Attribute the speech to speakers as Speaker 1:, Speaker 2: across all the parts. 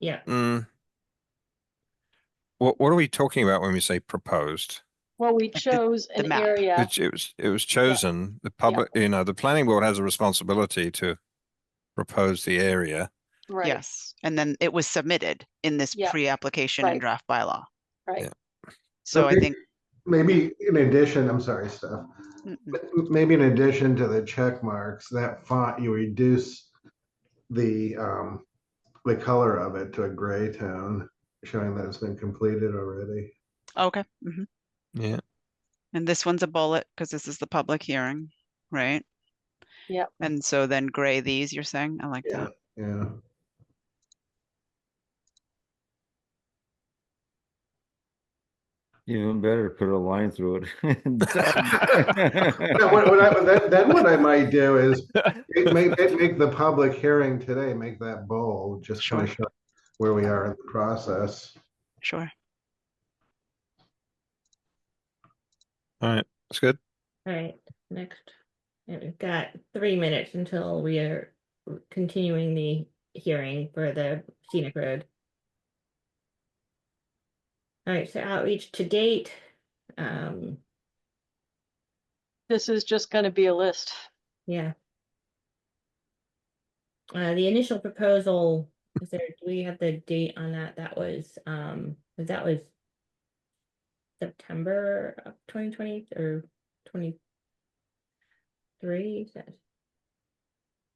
Speaker 1: Yeah.
Speaker 2: Mm. What, what are we talking about when we say proposed?
Speaker 3: Well, we chose
Speaker 4: the
Speaker 3: an
Speaker 4: map.
Speaker 3: area,
Speaker 2: It, it was, it was chosen, the public, you know, the planning board has a responsibility to propose the area.
Speaker 3: right,
Speaker 4: Yes, and then it was submitted in this
Speaker 3: Yeah,
Speaker 4: pre-application
Speaker 3: right.
Speaker 4: and draft bylaw.
Speaker 3: right.
Speaker 2: Yeah.
Speaker 4: So I
Speaker 5: Okay.
Speaker 4: think,
Speaker 5: Maybe in addition, I'm sorry, Steph,
Speaker 4: mm, mm,
Speaker 5: m- maybe in addition to the check marks, that font, you reduce the, um, the color of it to a gray tone, showing that it's been completed already.
Speaker 4: okay. mhm.
Speaker 2: Yeah.
Speaker 4: And this one's a bullet because this is the public hearing, right?
Speaker 3: Yep.
Speaker 4: And so then gray these, you're saying? I like
Speaker 5: Yeah,
Speaker 4: that.
Speaker 5: yeah.
Speaker 6: Even better, put a line through it. and
Speaker 5: Yeah, What,
Speaker 6: done.
Speaker 5: what I, then, then what I might do is make, make, make the public hearing today, make that bold, just kind of
Speaker 4: Sure.
Speaker 5: show where we are in the process.
Speaker 4: Sure.
Speaker 2: All right, that's good.
Speaker 1: Alright, next, and we've got three minutes until we are continuing the hearing for the scenic road. Alright, so outreach to date, um,
Speaker 3: This is just gonna be a list.
Speaker 1: yeah. Uh, the initial proposal, is there, do we have the date on that? That was, um, that was September of twenty twenty or twenty-three, is that?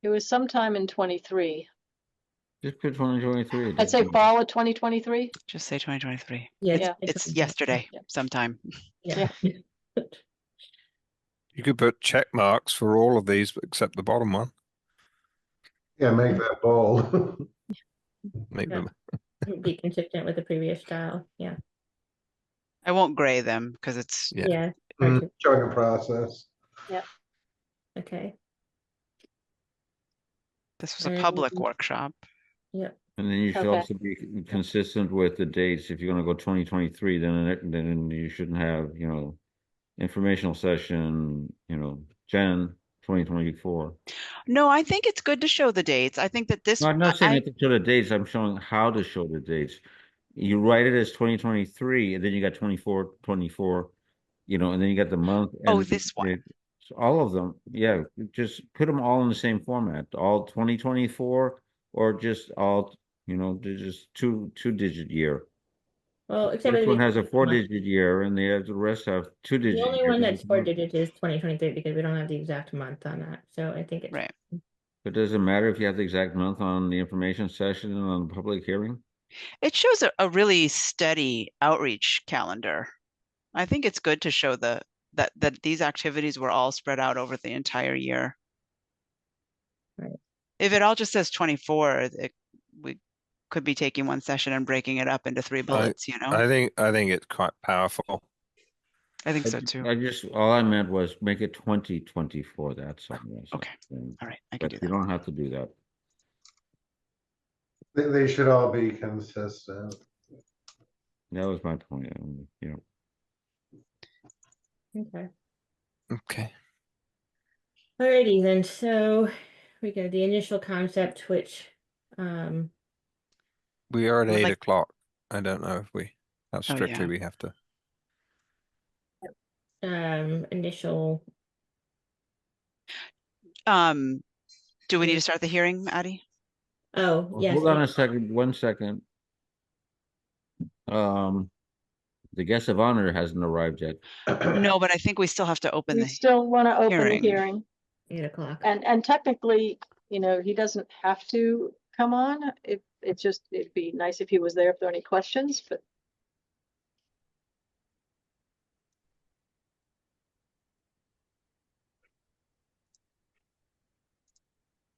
Speaker 3: It was sometime in twenty-three.
Speaker 6: Just put twenty twenty-three.
Speaker 3: I'd say fall of twenty twenty-three.
Speaker 4: Just say 2023.
Speaker 1: Yeah,
Speaker 3: Yeah.
Speaker 4: It's
Speaker 1: 2023.
Speaker 4: yesterday
Speaker 3: Yeah.
Speaker 4: sometime.
Speaker 1: Yeah.
Speaker 2: You could put check marks for all of these except the bottom one.
Speaker 5: Yeah, make that bold.
Speaker 2: Make
Speaker 1: Yeah.
Speaker 2: them,
Speaker 1: Be consistent with the previous style, yeah,
Speaker 4: I won't gray them because it's,
Speaker 2: Yeah.
Speaker 1: yeah,
Speaker 5: Mm,
Speaker 1: Okay.
Speaker 5: Showing a process.
Speaker 1: okay,
Speaker 4: this was a public
Speaker 3: Mm-hmm.
Speaker 1: Um,
Speaker 4: workshop.
Speaker 6: And then you should
Speaker 3: Okay.
Speaker 6: also be c- consistent with the dates. If you're gonna go twenty twenty-three, then, it- then you shouldn't have, you know, informational session, you know, Jan twenty twenty-four.
Speaker 4: No, I think it's good to show the dates. I think that this,
Speaker 6: No, I'm not saying
Speaker 4: I-
Speaker 6: you have to show the dates, I'm showing how to show the dates. You write it as twenty twenty-three, and then you got 24, 24, you know, and then you got the month.
Speaker 4: Oh,
Speaker 6: and the
Speaker 4: this one.
Speaker 6: date. So All of them, yeah, just put them all in the same format, all twenty twenty-four, or just all, you know, they're just two, two-digit year.
Speaker 1: well, except.
Speaker 6: This
Speaker 1: for
Speaker 6: one
Speaker 1: the-
Speaker 6: has a
Speaker 1: one.
Speaker 6: four-digit year, and the other- the rest have two-digit.
Speaker 1: The only
Speaker 6: year.
Speaker 1: one that's four digits is twenty twenty-three, because we don't have the exact month on that, so I think it's,
Speaker 4: right.
Speaker 6: It doesn't matter if you have the exact month on the information session and on the public hearing.
Speaker 4: It shows a, a really steady outreach calendar. I think it's good to show the that that these activities were all spread out over the entire year.
Speaker 1: Right.
Speaker 4: If it all just says 24, it, we could be taking one session and breaking it up into three bullets, you know?
Speaker 2: I
Speaker 4: I,
Speaker 2: think, I think it's quite powerful.
Speaker 4: think
Speaker 6: I
Speaker 4: so
Speaker 6: ju-
Speaker 4: too.
Speaker 6: I just, all I meant was make it twenty twenty-four, that's all. that's all.
Speaker 4: okay.
Speaker 6: And-
Speaker 4: all right, I can
Speaker 6: But
Speaker 4: do
Speaker 6: you
Speaker 4: that.
Speaker 6: don't have to do that.
Speaker 5: They, they should all be consistent.
Speaker 6: That was my point, um, you know.
Speaker 1: okay.
Speaker 2: Okay.
Speaker 1: Alrighty then, so we go the initial concept, which, um,
Speaker 2: We are at
Speaker 4: Would
Speaker 2: eight
Speaker 4: like- Oh,
Speaker 2: o'clock. I don't know if we, how
Speaker 4: yeah.
Speaker 2: strictly we have to.
Speaker 1: um, initial,
Speaker 4: Um, do we need
Speaker 1: Yeah.
Speaker 4: to start the hearing, Addie?
Speaker 1: oh,
Speaker 6: Well,
Speaker 1: yes.
Speaker 6: Hold on
Speaker 1: it-
Speaker 6: a second, one second. Um, the guest of honor hasn't arrived yet.
Speaker 4: No, but I think we still have to open
Speaker 3: We
Speaker 4: the
Speaker 3: still wanna open the
Speaker 4: hearing.
Speaker 3: hearing.
Speaker 1: Eight o'clock,
Speaker 3: And, and technically, you know, he doesn't have to come on. It, it's just, it'd be nice if he was there if there are any questions, but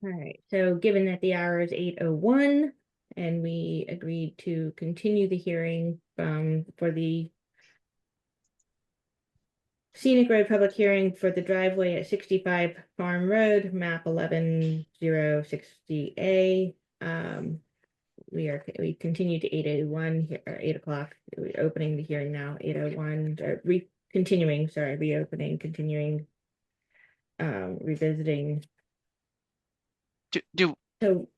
Speaker 1: alright, so given that the hour is eight oh one, and we agreed to continue the hearing, um, for the scenic road public hearing for the driveway at sixty-five Farm Road, map eleven zero sixty A. Um, we are, we continue to eight oh one, or eight o'clock, we're opening the hearing now, eight oh one, or re, continuing, sorry, reopening, continuing, um, revisiting,
Speaker 4: do, do
Speaker 1: so